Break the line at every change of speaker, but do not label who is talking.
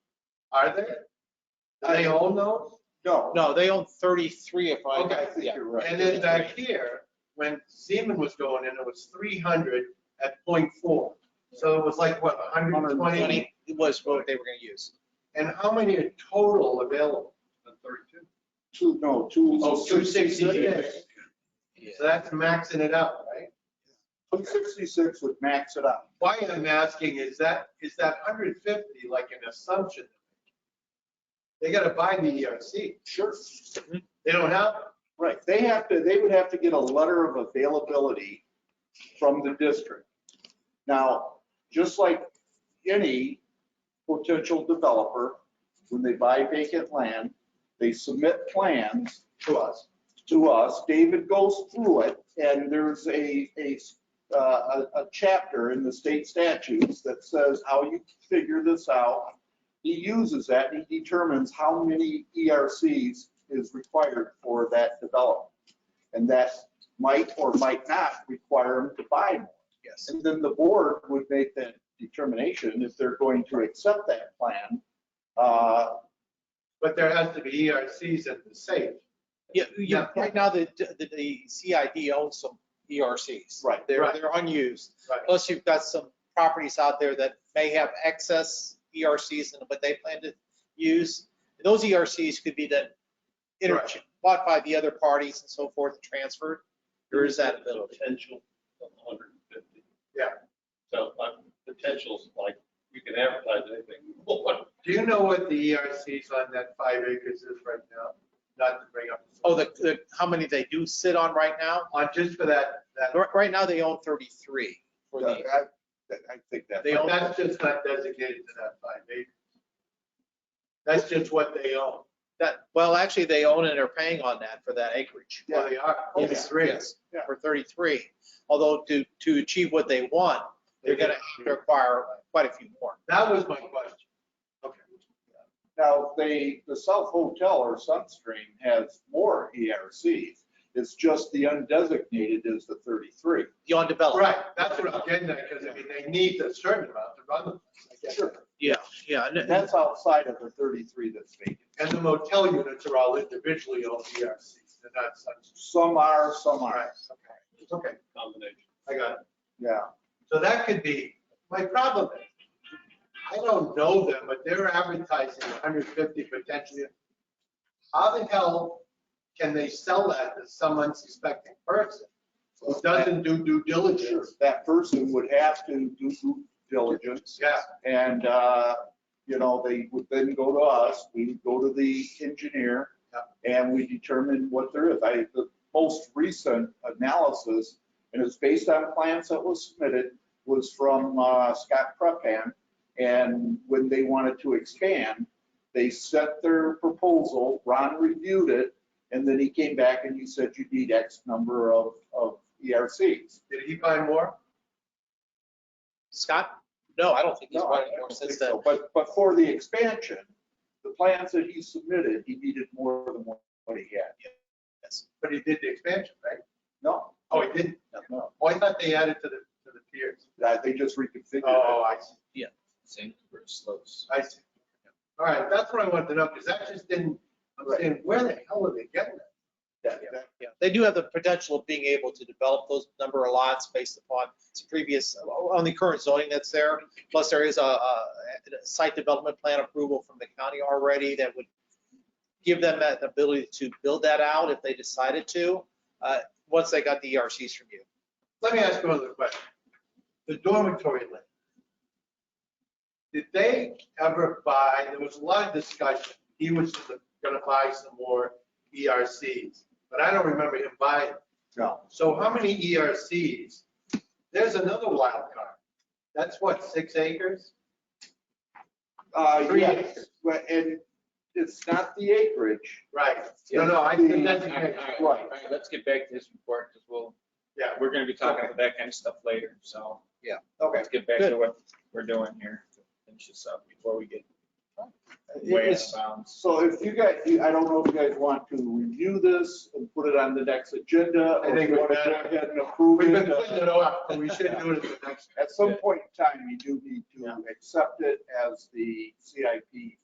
Are there? Do they own those?
No.
No, they own 33 if I.
Okay, I
think
yeah.
you're right.
And then back here, when Siemens was going in, it was three hundred at 0.4. So it was like, what, hundred and twenty?
120 was what they were going to use.
And how many are total available? Thirty-two.
Two, no, two.
Oh, 266. So that's maxing it out, right?
Two sixty-six would max it out.
Why I'm asking is that, is that hundred fifty like an assumption? They gotta buy the ERC.
Sure.
They don't have, it.
Right, they have to, they would have to get a letter of availability from the district. Now, just like any potential developer, when they buy vacant land, they submit plans
to us.
to us. David goes through it, and there's a, a, uh, a, a chapter in the state statutes that says how you figure this out. He uses that, and he determines how many ERCs is required for that development. And that might or might not require him to buy more.
Yes.
And then the board would make that determination if they're going to accept that plan. Uh,
But there has to be E ERCs in the safe.
Yeah, yeah,
Yeah.
right now, the, the- the CID owns some ERCs.
Right.
They're,
Right.
they're unused.
Right.
Plus you've got some properties out there that may have excess E ERCs and what they plan to use. Those ERCs could be then inter-
Right.
bought by the other parties and so forth, transferred. There is that ability.
Potential of hundred and fifty.
Yeah.
So, like, potential's like, you can advertise anything. you want.
Do you know what the E ERCs on that five acres is right now? Not to bring up.
Oh, the, the, how many they do sit on right now?
On just for that, that,
Right, right now, they own 33 for the,
I, Uh, I think that.
They
but
own-
that's just not designated to that five acres. That's just what they own,
that, well, actually, they own and are paying on that for that acreage.
where they are,
Yeah.
it's three.
Yes,
Yeah.
For 33, although to, to achieve what they want, they're gonna have
Mm-hmm.
to acquire quite a few more.
That was my question. Okay.
Now, they, the South Hotel or Sunstream has more ERCs. It's just the undesignated is the 33.
The undeveloped.
Right, that's what I'm getting at, because I mean, they need a certain amount to run them. I get it.
Yeah, yeah. and-
And that's outside of the 33 that's vacant.
And the motel units are all individually owned ERCs, they're not such.
Some are, some
All right,
aren't.
okay, okay,
Combination.
I got it.
Yeah.
So that could be, my problem is, I don't know them, but they're advertising 150 potentially. How the hell can they sell that to some unsuspecting person who doesn't do due
Sure.
diligence?
That person would have to do due diligence.
Yeah,
And, uh, you know, they would then go to us, we would go to the engineer, and we determine what there is. I, the most recent analysis, and it's based on plans that was submitted, was from uh, Scott Prepan. And when they wanted to expand, they set their proposal, Ron reviewed it, and then he came back and he said, you need X number of, of E ERCs.
did he buy more?
Scott? No, I don't think he's
No,
bought
I
any more
don't think
since then.
so, but, but for the expansion, the plans that he submitted, he needed more than what he had.
Yes.
But he did the expansion, right?
No,
Oh, he didn't?
no,
Oh, I thought they added to the, to the piers.
that- uh, they just reconfigured it.
Oh, I see,
Same for slopes.
I see. All right, that's what I wanted to know, because that just didn't, I'm saying, where the hell are they getting that?
That- that-
Yeah, they do have the potential of being able to develop those number of lots based upon some previous, uh, on the current zoning that's there. Plus, there is a, a site development plan approval from the county already that would give them that ability to build that out if they decided to, uh, once they got the ERCs from you.
Let me ask you another question. The dormitory land. Did they ever buy, there was a lot of discussion, he was gonna buy some more ERCs, but I don't remember him buying.
No,
So how many ERCs? There's another wild card. That's what, six acres?
uh,
Three
yes,
acres.
but, and it's not the acreage.
Right. No, no, I think that's,
Right.
All right, let's get back to this report, because we'll,
yeah.
we're gonna be talking about that kind of stuff later, so.
Okay.
Let's get back to what we're doing here, to finish this up before we get way out
It's-
of bounds.
So if you guys, I don't know if you guys want to review this and put it on the next agenda,
I
or if
think
you
we
want to
better.
go ahead and approve
We've
it.
been putting it off, but we should do it at the next.
At some point in time, you do need to accept it as the CIP